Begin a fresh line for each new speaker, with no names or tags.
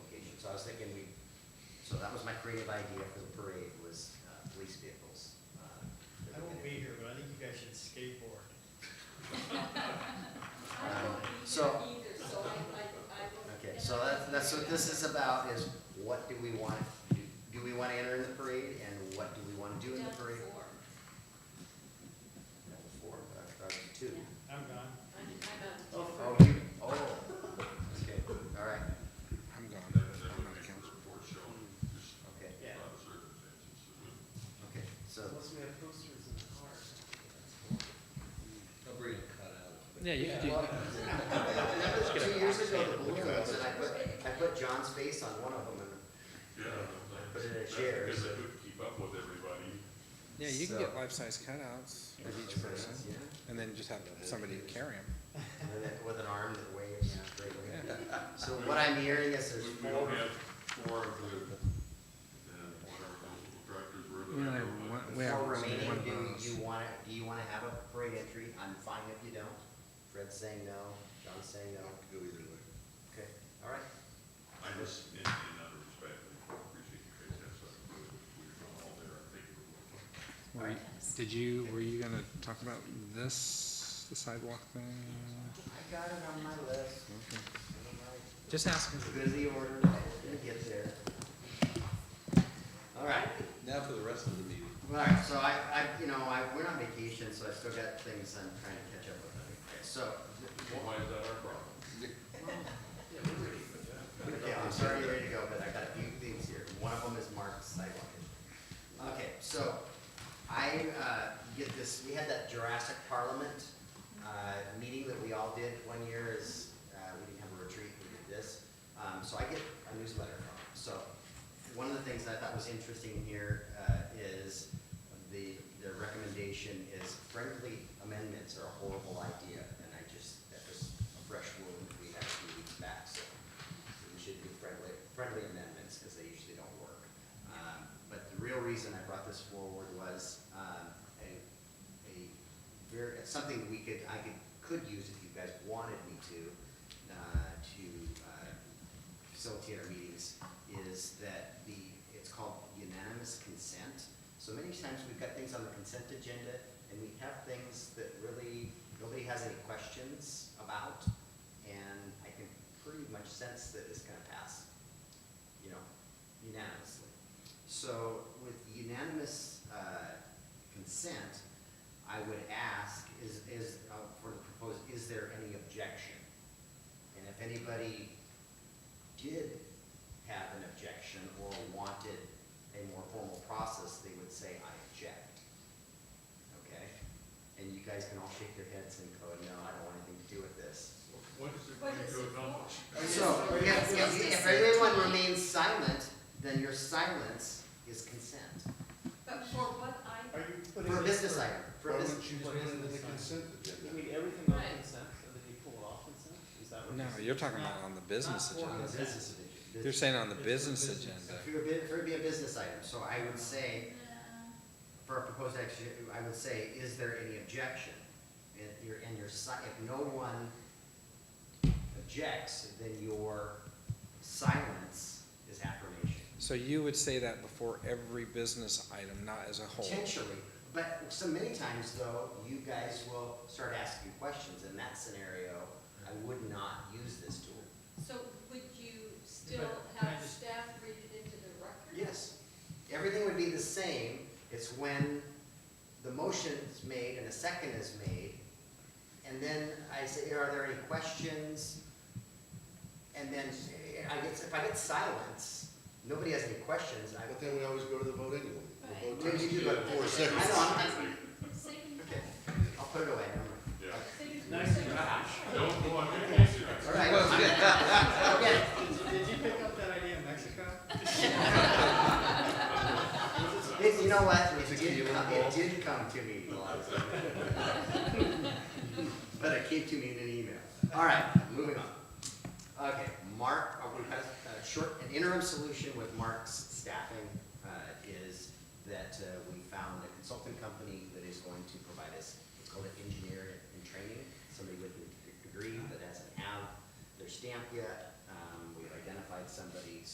was thinking we, so that was my creative idea for the parade was, uh, police vehicles. uh, that
I
we're
won't
gonna-
be here, but I think you guys should skateboard.
I won't be
So-
here either, so I, I, I will.
Okay,
and
so
I
that's,
will
that's
do
what
that.
this is about, is what do we want, do, do we wanna enter in the parade, and what do we wanna do in the
Done
parade?
for.
That was four, but I thought it was two.
Yeah.
I'm gone.
I'm, I'm uh,
Oh,
on.
you, oh, okay, all right,
I'm gone, I'm on the council.
okay,
Yeah.
okay, so,
Unless we have posters in the car.
Yeah, you could do,
Well, Two years ago, the balloon ones, and I put, I put John's face on one of them,
Yeah,
Put
that's,
it in a
that's
chair,
because
so-
I couldn't keep up with everybody.
Yeah, you can
So-
get life-size cutouts of
and.
each person, and then just have somebody carry them.
And then With an arm that waves, great.
Yeah.
So what I'm hearing is
We
there's
we don't
four,
have four of the, uh, whatever those little tractors were that I drove on.
the four remaining, do you wanna, do you wanna have a parade entry? I'm fine if you don't. Fred's saying no, John's saying no. Go either way. Okay, all right.
I just, in, in other respect, I appreciate you guys have such a good, we're all there, I think.
Were you- Did you, were you gonna talk about this, the sidewalk thing?
I got it on my list. I'm
Just ask him.
Busy order, we'll get there. All right.
Now for the rest of the meeting.
All right, so I, I, you know, I, we're on vacation, so I still got things I'm trying to catch up with. Okay, So,
Well, Why is that our problem?
Okay, I'm sorry, you're ready to go, but I got a few things here. One of them is Mark's sidewalk. Okay, so I, uh, get this, we had that Jurassic Parliament, uh, meeting that we all did one year is, uh, we didn't have a retreat, we did this. Um, so I get a newsletter from them. So one of the things that I thought was interesting here, uh, is the, the recommendation is friendly amendments are a horrible idea. And I just, that was a fresh wound that we had a few weeks back, so we should do friendly, friendly amendments, because they usually don't work. Um, But the real reason I brought this forward was um, a, a, ver- something we could, I could, could use if you guys wanted me to, uh, to uh, facilitate our meetings, is that the, it's called unanimous consent. So many times we've got things on the consent agenda, and we have things that really, nobody has any questions about, and I can pretty much sense that it's gonna pass, you know, unanimously. So with unanimous uh, consent, I would ask, is, is, uh, for the proposed, is there any objection? And if anybody did have an objection or wanted a more formal process, they would say, I object. Okay? And you guys can all shake your heads and go, no, I don't want anything to do with this.
What is it
What
going
is
to
it
accomplish?
for?
So, if,
It's supposed
if,
to
if
say
everyone
time,
remains silent, then your silence is consent.
But for what I,
Are you putting?
For a
it
business item, for a business,
you put it into the consent
agenda?
mean everything
Right.
consent, so that they pull it off consent? Is that
No, you're talking about on the business
for a
agenda.
business agenda.
You're saying on the
It's for
business
business.
agenda.
For a bit, for it to be a business item, so I would say,
uh,
for a proposed action, I would say, is there any objection? And your, and your si, if no one objects, then your silence is affirmation.
So you would say that before every business item, not as a whole?
Potentially, but so many times though, you guys will start asking questions. In that scenario, I would not use this tool.
so would you still
But can I
have
just-
staff read it into the record?
Yes, everything would be the same. It's when the motion is made and a second is made. And then I say, are there any questions? And then I get, if I get silence, nobody has any questions, I,
But then we always go to the vote anyway. The vote
Right.
takes
You do like
four
I
seconds.
know, I'm-
Saving time.
I'll put it away. never mind.
Yeah.
Saving
Nice
time.
Don't go on vacation.
All right, I'm gonna- okay.
Did you pick up that idea in Mexico?
It, you know what, it did,
Tequila
come- it
ball.
did come to me once. But it came to me in an email. All right, moving on. Okay, Mark, uh, we have a short, an interim solution with Mark's staffing, uh, is that, uh, we found a consulting company that is going to provide us, it's called an engineer in training, somebody with a degree that hasn't have their stamp yet. Um, we've identified somebody,